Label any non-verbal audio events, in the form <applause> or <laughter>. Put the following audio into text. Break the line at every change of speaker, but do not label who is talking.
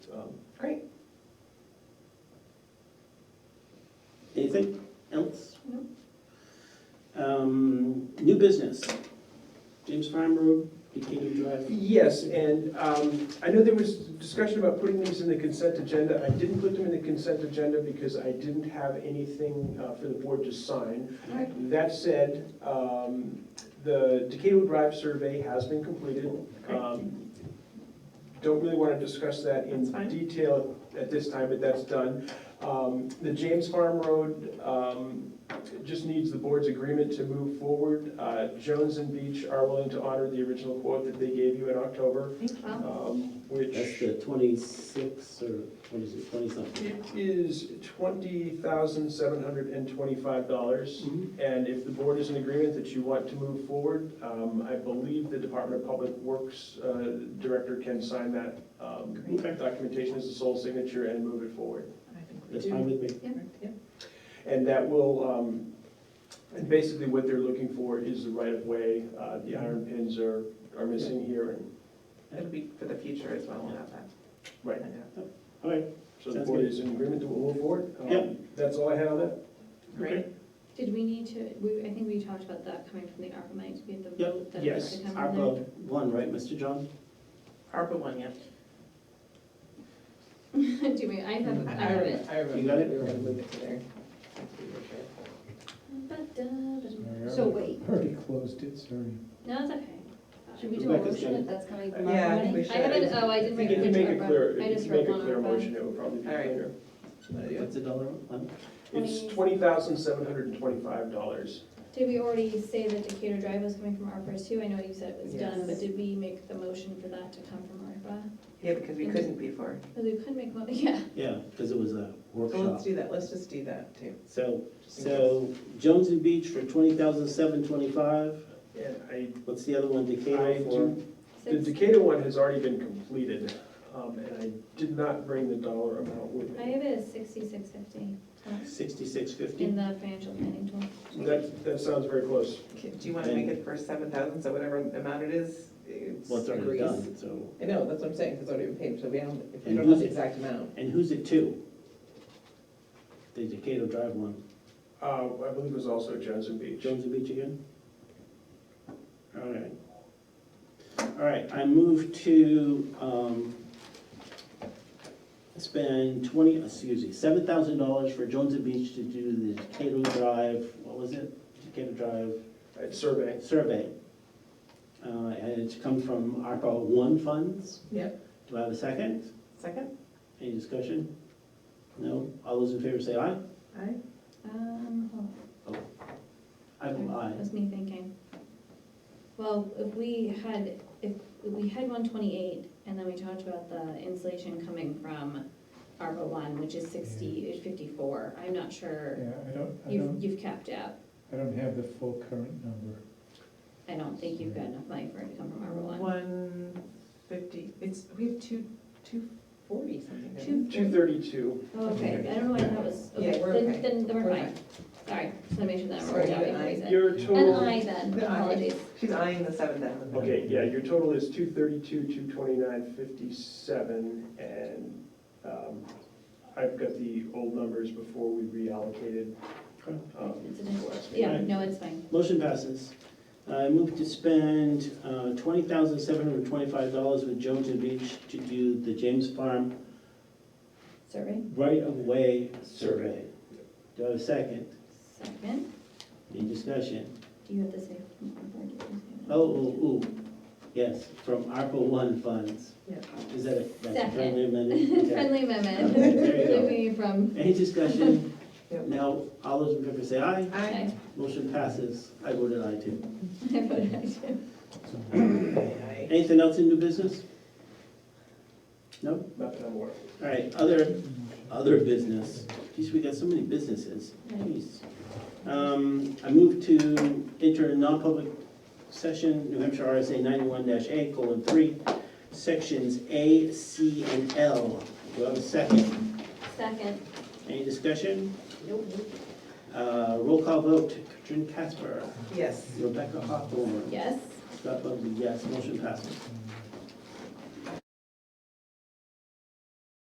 um, great.
Anything else?
No.
Um, new business, James Farm Road, Decatur Drive.
Yes, and um, I know there was discussion about putting these in the consent agenda. I didn't put them in the consent agenda because I didn't have anything uh, for the board to sign.
Right.
That said, um, the Decatur Drive survey has been completed.
Great.
Um, Don't really want to discuss that in
That's fine.
detail at this time, but that's done. Um, The James Farm Road um, just needs the board's agreement to move forward. Uh, Jones and Beach are willing to honor the original quote that they gave you in October, um,
That's
which
the twenty-six or what is it, twenty-something?
it is $20,725.
Mm-hmm.
And if the board is in agreement that you want to move forward, um, I believe the Department of Public Works uh, Director can sign that um,
Great.
documentation as the sole signature and move it forward.
That's fine with me.
And that will, um, and basically what they're looking for is the right-of-way. Uh, The iron pins are, are missing here, and
It'll be for the future as well, we'll have that.
Right.
All right,
so the
Sounds
board
good.
is in agreement that we'll move forward. Um,
Yep.
That's all I had on that.
Great.
Did we need to, we, I think we talked about that coming from the ARPA money, do we have the
Yep.
vote that
Yes.
has to come from there?
ARPA one, right, Mr. John?
ARPA one, yeah.
<laughs> Do we, I
Mm-hmm.
have, I have it.
I remember.
You got it?
We were gonna move it to there.
So wait,
Already closed it, sorry.
no, it's okay.
Should we do a
Rebecca's
motion
done.
if that's coming from
Yeah, I
our
think we
money?
should.
I haven't, oh, I
If
didn't
you
make it
can
to
make a clear,
ARPA, I
if
just
you
wrote
make a
one
clear motion,
ARPA.
it would probably be
All right.
cleaner.
What's the dollar amount?
It's
Twenty-
twenty thousand seven hundred and twenty-five dollars.
Did we already say that Decatur Drive was coming from ARPA too? I know you said it was done,
Yes.
but did we make the motion for that to come from ARPA?
Yeah, because we couldn't before.
Because we could make, mo- <laughs> yeah,
Yeah, because it was
So
a
let's
workshop.
do that, let's just do that too.
Oh, So,
just in
so Jones and Beach for twenty thousand seven twenty-five.
And I,
What's the other one,
I
Decatur for?
do- the
six,
Decatur one has already been completed, um, and I did not bring the dollar amount with
I
me.
have it as sixty-six fifty
Sixty-six
in
fifty?
the financial planning tool.
That, that sounds very close.
case. Okay, Do you wanna make it for seven thousand, so whatever amount it is, it's
Well, it's already
agrees?
done, so.
I know, that's what I'm saying, 'cause it's already been paid, so we don't, if we
And
don't know
who's
the
it?
exact amount.
And who's it to? The Decatur Drive one,
Uh, I believe it was also Jones and Beach.
Jones and Beach again? All right. All right, I move to, um, spend twenty, excuse me, seven thousand dollars for Jones and Beach to do the Decatur Drive, what was it? Decatur Drive
It's survey.
survey. Uh, and it's come from ARPA one funds.
Yep.
Do I have a second?
Second?
Any discussion? No? All those in favor say aye?
Aye.
Um, hold on.
I vote
That
aye.
was me thinking. Well, if we had, if we had one twenty-eight, and then we talked about the insulation coming from ARPA one, which is sixty, fifty-four, I'm not sure.
Yeah, I don't, I
You've,
don't,
you've capped out.
I don't have the full current number.
I don't think you've got enough money for it to come from ARPA one.
One fifty, it's, we have two, two forty something. don't
Two-
we?
Two thirty-two.
Oh, okay, I don't know why that was, okay,
Yeah, we're
then,
okay.
then, then we're
We're
fine. Sorry, just wanna make sure that
Sorry,
we're out
an
before
aye.
you said.
Your
An
total,
aye then,
The aye.
apologies.
She's eyeing the seven thousand.
okay, yeah, your total is two thirty-two, two twenty-nine, fifty-seven, and, um, I've got the old numbers before we reallocated.
Okay.
Oh.
um,
It's an aye.
last meeting.
Yeah, no, it's fine.
Motion passes. I move to spend uh, $20,725 with Jones and Beach to do the James Farm
Survey,
right-of-way survey. Do I have a second?
second.
Any discussion?
Do you have to say? or did you say that?
Oh,
<laughs>
ooh, ooh, yes, from ARPA one funds.
Yeah.
Is that a, that's a
Second.
friendly
<laughs>
amendment? Okay.
Friendly amendment,
Okay, there you go.
Looking from,
Any discussion?
Yep.
Now, all those in favor say aye.
Aye.
I,
Motion passes. I voted aye too.
<laughs> I voted aye too.
Aye.
Anything else in new business? No?
Not that I'm aware of.
All right, other, other business. Geez, we got so many businesses. Jeez. Um, I move to enter a non-public session, New Hampshire RSA ninety-one A colon three, sections A, C, and L. Do I have a second?
Second,
Any discussion? Uh, roll call vote, Katrin Casper,
Yes.
Rebecca Hawthorne.
yes.
Scott Bubbs, yes, motion passes.